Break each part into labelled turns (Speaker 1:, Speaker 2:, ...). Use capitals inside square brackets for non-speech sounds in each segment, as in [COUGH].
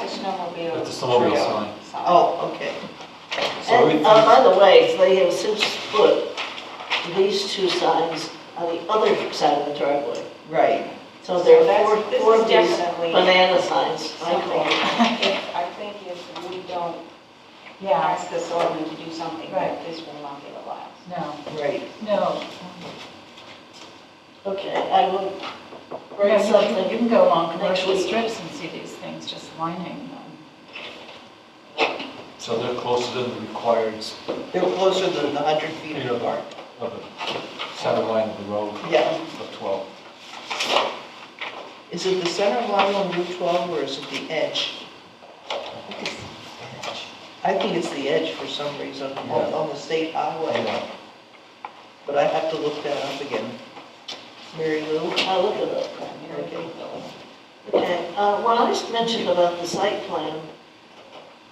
Speaker 1: snowmobile.
Speaker 2: With the snowmobile
Speaker 1: trail
Speaker 2: sign.
Speaker 3: Oh, okay.
Speaker 2: So we
Speaker 3: And, uh, by the way, they have since put these two signs on the other side of the driveway.
Speaker 4: Right.
Speaker 3: So there
Speaker 1: So that's-
Speaker 3: are
Speaker 1: this
Speaker 3: four, four
Speaker 1: is
Speaker 3: of these
Speaker 1: definitely
Speaker 3: banana signs, I call
Speaker 1: Something,
Speaker 3: them.
Speaker 1: if, I think if we don't ask the selectmen to do something, that
Speaker 4: Right.
Speaker 1: this will not get allowed.
Speaker 4: No,
Speaker 3: Right.
Speaker 4: no.
Speaker 3: Okay, I will
Speaker 4: No, you
Speaker 3: write
Speaker 4: can- You
Speaker 3: something.
Speaker 4: can go along
Speaker 3: next
Speaker 4: commercial
Speaker 3: week.
Speaker 4: strips and see these things, just lining them.
Speaker 2: So they're closer than the required s-
Speaker 5: They're closer than the 100 feet apart.
Speaker 2: of the center line of the road
Speaker 5: Yeah.
Speaker 2: of 12.
Speaker 5: Is it the center line on Route 12 or is it the edge? I think it's the edge for some reason on
Speaker 2: Yeah.
Speaker 5: on the state highway,
Speaker 2: Yeah.
Speaker 5: but I have to look that up again. Mary Lou?
Speaker 3: I'll look it up.
Speaker 5: Okay.
Speaker 3: Okay, uh, when I was mentioned about the site plan,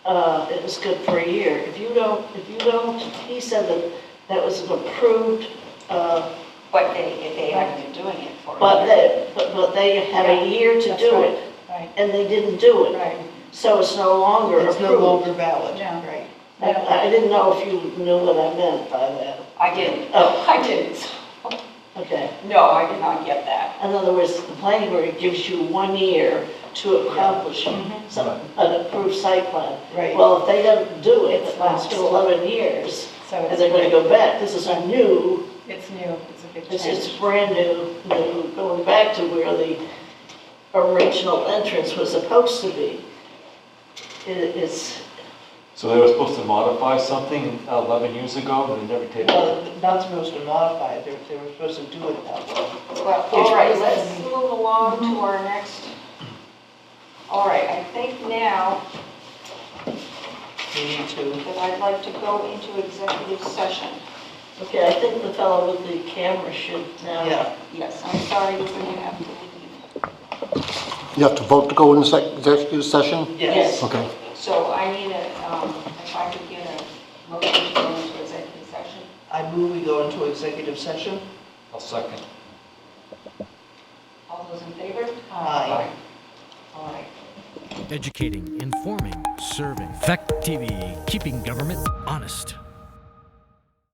Speaker 3: uh, it was good for a year. If you don't, if you don't, he said that that was an approved, uh,
Speaker 1: But they, if they haven't been doing it for. a
Speaker 3: but
Speaker 1: year.
Speaker 3: they, but but they have a year to
Speaker 1: That's
Speaker 3: do
Speaker 1: right,
Speaker 3: it,
Speaker 1: Right,
Speaker 3: and they didn't do it.
Speaker 1: right.
Speaker 3: So it's no longer
Speaker 5: It's no
Speaker 3: approved.
Speaker 5: longer valid,
Speaker 4: Yeah.
Speaker 5: right?
Speaker 3: I I didn't know if you knew what I meant by that.
Speaker 1: I didn't, [LAUGHS]
Speaker 3: Oh.
Speaker 1: I didn't.
Speaker 3: Okay.
Speaker 1: No, I did not get that.
Speaker 3: In other words, the planning board gives you one year to accomplish
Speaker 1: Mm-hmm.
Speaker 3: some, an approved site plan.
Speaker 5: Right.
Speaker 3: Well, if they don't do it, it lasts
Speaker 4: lapsed.
Speaker 3: for 11 years,
Speaker 4: So
Speaker 3: and they're going to
Speaker 4: it's,
Speaker 3: go back. This is a new,
Speaker 4: it's new, it's a big
Speaker 3: this is
Speaker 4: change.
Speaker 3: brand new, new, going back to where the original entrance was supposed to be. It- It's,
Speaker 2: So they were supposed to modify something 11 years ago, and they never did.
Speaker 5: Well, not supposed to modify it, they were supposed to do it that way.
Speaker 1: Well, all right, let's move along to our next. All right, I think now
Speaker 5: We need to,
Speaker 1: that I'd like to go into executive session.
Speaker 3: okay, I think the fellow with the camera should now.
Speaker 5: yeah.
Speaker 1: Yes, I'm sorry, we're going to have to leave.
Speaker 6: You have to vote to go into sec- executive session?
Speaker 3: Yes.
Speaker 6: Okay.
Speaker 1: So I need a, um, if I could get a motion to go into executive session.
Speaker 5: I move we go into executive session.
Speaker 2: I'll second.
Speaker 1: All those in favor?
Speaker 5: Aye.
Speaker 1: All right.
Speaker 7: Educating, informing, serving. Fact TV, keeping government honest.